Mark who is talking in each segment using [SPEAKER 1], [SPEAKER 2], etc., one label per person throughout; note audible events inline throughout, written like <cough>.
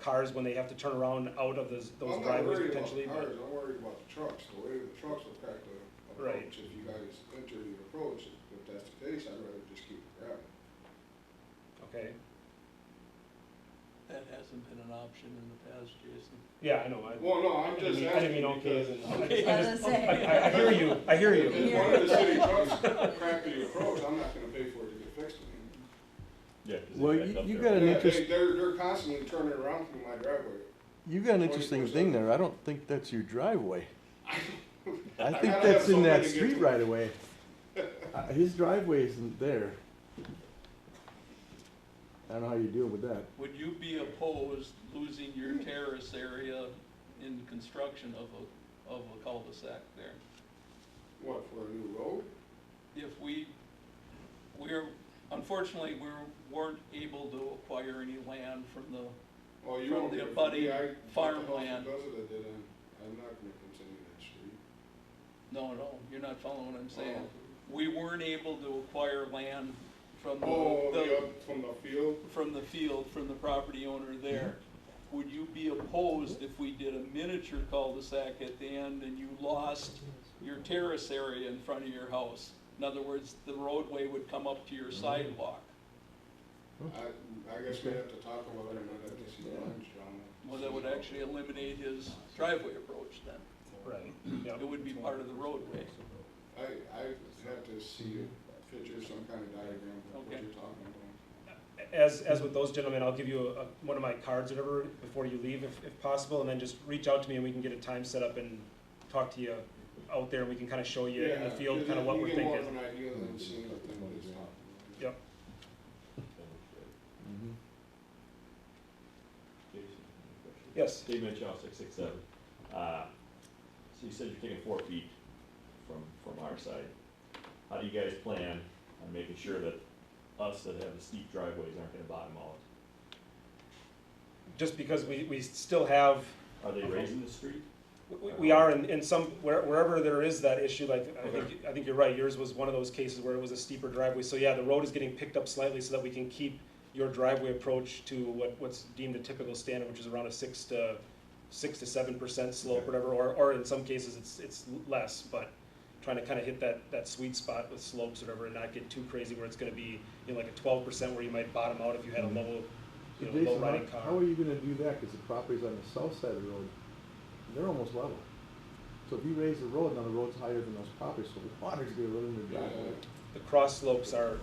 [SPEAKER 1] cars when they have to turn around out of those
[SPEAKER 2] I'm
[SPEAKER 1] those
[SPEAKER 2] not
[SPEAKER 1] driveways
[SPEAKER 2] worried about
[SPEAKER 1] potentially.
[SPEAKER 2] the
[SPEAKER 1] but-
[SPEAKER 2] Cars, I'm worried about the trucks, the way the trucks affect the
[SPEAKER 1] Right.
[SPEAKER 2] approach, if you guys enter the approach, if that's the case, I'd rather just keep it gravel.
[SPEAKER 1] Okay,
[SPEAKER 3] That hasn't been an option in the past, Jason.
[SPEAKER 1] yeah, I know, I,
[SPEAKER 2] Well, no,
[SPEAKER 1] I
[SPEAKER 2] I'm
[SPEAKER 1] didn't
[SPEAKER 2] just
[SPEAKER 1] mean, I didn't mean
[SPEAKER 2] asking
[SPEAKER 1] okay as
[SPEAKER 2] because.
[SPEAKER 1] in.
[SPEAKER 3] Okay.
[SPEAKER 1] I
[SPEAKER 4] I was
[SPEAKER 1] just-
[SPEAKER 4] gonna say.
[SPEAKER 1] I, <laughs> I, I hear you, I hear
[SPEAKER 2] If
[SPEAKER 1] you.
[SPEAKER 2] it's one of the city trucks cracked the approach, I'm not gonna pay for it to get fixed.
[SPEAKER 5] Yeah, 'cause
[SPEAKER 6] Well,
[SPEAKER 5] they backed
[SPEAKER 6] you-
[SPEAKER 5] up
[SPEAKER 6] you
[SPEAKER 5] there.
[SPEAKER 6] got an
[SPEAKER 2] Yeah,
[SPEAKER 6] interest-
[SPEAKER 2] they- They're, they're constantly turning around through my driveway. <laughs>
[SPEAKER 6] You got an interesting thing there. I don't think that's your driveway. I
[SPEAKER 2] I
[SPEAKER 6] think
[SPEAKER 2] gotta
[SPEAKER 6] that's
[SPEAKER 2] have
[SPEAKER 6] in that
[SPEAKER 2] somebody to get
[SPEAKER 6] street
[SPEAKER 2] to.
[SPEAKER 6] right away. Uh, His driveway isn't there. I don't know how you deal with that.
[SPEAKER 3] Would you be opposed losing your
[SPEAKER 2] Hmm.
[SPEAKER 3] terrace area in the construction of a, of a cul-de-sac there?
[SPEAKER 2] <laughs> What, for a new road?
[SPEAKER 3] If we, we're, unfortunately, we weren't able to acquire any land from the,
[SPEAKER 2] Oh, you
[SPEAKER 3] From
[SPEAKER 2] want
[SPEAKER 3] the
[SPEAKER 2] me to-
[SPEAKER 3] abutting
[SPEAKER 2] yeah, I bought the house
[SPEAKER 3] farmland.
[SPEAKER 2] Because of that, did I? I'm not gonna continue that street.
[SPEAKER 3] no, no, you're not following what I'm saying. We weren't able to acquire land from the.
[SPEAKER 2] Oh,
[SPEAKER 3] the-
[SPEAKER 2] the, up from the field?
[SPEAKER 3] from the field, from the property owner there. Would you be opposed if we did a miniature cul-de-sac at the end and you lost your terrace area in front of your house? In other words, the roadway would come up to your sidewalk.
[SPEAKER 2] I, I guess we have to talk about it, I'd like to see lunch, John.
[SPEAKER 3] Well, that would actually eliminate his driveway approach then.
[SPEAKER 1] Right,
[SPEAKER 3] It
[SPEAKER 1] yep,
[SPEAKER 3] would be part of the roadway.
[SPEAKER 2] I, I have to see a picture, some kind of diagram of what
[SPEAKER 3] Okay.
[SPEAKER 2] you're talking about.
[SPEAKER 1] as, as with those gentlemen, I'll give you a, one of my cards or whatever before you leave, if, if possible, and then just reach out to me and we can get a time set up and talk to you out there, and we can kinda show you in the
[SPEAKER 2] Yeah,
[SPEAKER 1] field,
[SPEAKER 2] you
[SPEAKER 1] kinda
[SPEAKER 2] get-
[SPEAKER 1] what
[SPEAKER 2] you
[SPEAKER 1] we're
[SPEAKER 2] get more of
[SPEAKER 1] thinking.
[SPEAKER 2] an idea than seeing what the nobody's talking about.
[SPEAKER 1] Yep,
[SPEAKER 6] Mhm.
[SPEAKER 1] Mm-hmm.
[SPEAKER 5] Jason, any questions?
[SPEAKER 1] yes,
[SPEAKER 5] Dave Mitchell, six six seven. Uh, so you said you're taking four feet from, from our side. How do you guys plan on making sure that us that have the steep driveways aren't gonna bottom out?
[SPEAKER 1] just because we, we still have
[SPEAKER 5] Are they raising the street?
[SPEAKER 1] We- We are in, in some, where- wherever there is that issue, like, I think, I think you're right, yours was one of those cases where it was a steeper driveway. So yeah, the road is getting picked up slightly so that we can keep your driveway approach to what, what's deemed a typical standard, which is around a six to, six to seven percent slope,
[SPEAKER 5] Okay.
[SPEAKER 1] whatever, or, or in some cases, it's, it's less, but trying to kind of hit that, that sweet spot with slopes, whatever, and not get too crazy where it's gonna be, you know, like a twelve percent where you might bottom out if you had a level,
[SPEAKER 6] Mm-hmm. So
[SPEAKER 1] you know, low
[SPEAKER 6] Jason,
[SPEAKER 1] riding
[SPEAKER 6] how-
[SPEAKER 1] car.
[SPEAKER 6] how are you gonna do that? Cause the properties on the south side of the road, they're almost level. So if you raise the road, now the road's higher than those properties, so the water's gonna run in the driveway.
[SPEAKER 2] Uh,
[SPEAKER 1] the cross slopes are,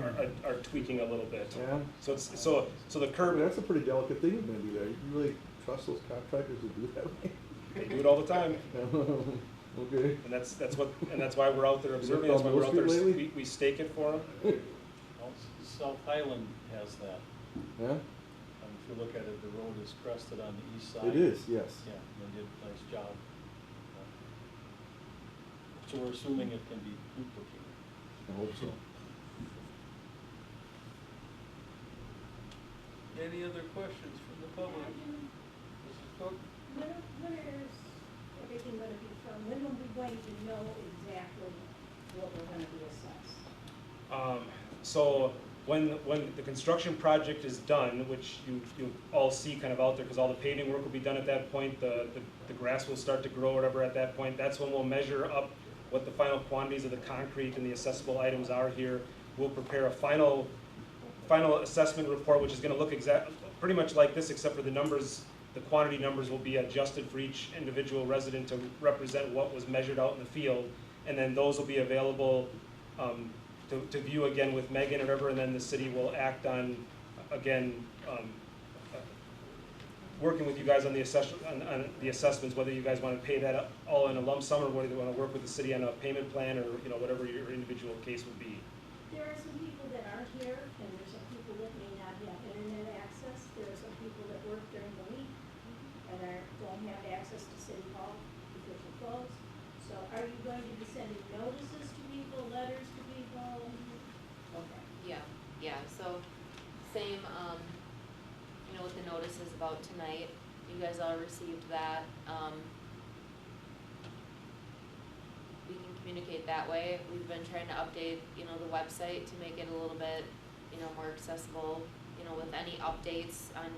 [SPEAKER 1] are, are tweaking a little bit.
[SPEAKER 6] Mm. Yeah.
[SPEAKER 1] So it's, so, so the
[SPEAKER 6] I mean,
[SPEAKER 1] curb,
[SPEAKER 6] that's a pretty delicate thing you're gonna do there. You really trust those contractors to do that way? <laughs>
[SPEAKER 1] they do it all the time,
[SPEAKER 6] Okay.
[SPEAKER 1] and that's, that's what, and that's why we're out there
[SPEAKER 6] Is it
[SPEAKER 1] observing, that's why
[SPEAKER 6] called
[SPEAKER 1] we're
[SPEAKER 6] Wall
[SPEAKER 1] out there,
[SPEAKER 6] Street lately?
[SPEAKER 1] we, we stake it for them.
[SPEAKER 7] Well, S- South Highland has that.
[SPEAKER 6] <laughs> Yeah,
[SPEAKER 7] Um, If you look at it, the road is crested on the east side.
[SPEAKER 6] it is, yes.
[SPEAKER 7] Yeah, they did a nice job. So we're assuming it can be duplicated.
[SPEAKER 6] I hope so.
[SPEAKER 3] Any other questions from the public? Mrs. Cook?
[SPEAKER 8] Where, where's everything gonna be from? When are we going to know exactly what we're gonna be assessed?
[SPEAKER 1] Um, so when, when the construction project is done, which you, you all see kind of out there, because all the paving work will be done at that point, the, the, the grass will start to grow, whatever, at that point, that's when we'll measure up what the final quantities of the concrete and the accessible items are here. We'll prepare a final, final assessment report, which is gonna look exact, pretty much like this, except for the numbers, the quantity numbers will be adjusted for each individual resident to represent what was measured out in the field. And then those will be available, um, to, to view again with Megan or whatever, and then the city will act on, again, um, uh, working with you guys on the assess, on, on the assessments, whether you guys wanna pay that up all in a lump sum, or whether you wanna work with the city on a payment plan, or, you know, whatever your individual case would be.
[SPEAKER 8] There are some people that aren't here, and there's some people that may not have internet access. There are some people that work during the week and are, don't have access to city hall because of closed. So are you going to be sending notices to people, letters to people? Okay.
[SPEAKER 9] Yeah, yeah, so same, um, you know, with the notices about tonight, you guys all received that, um. We can communicate that way, we've been trying to update, you know, the website to make it a little bit, you know, more accessible, you know, with any updates on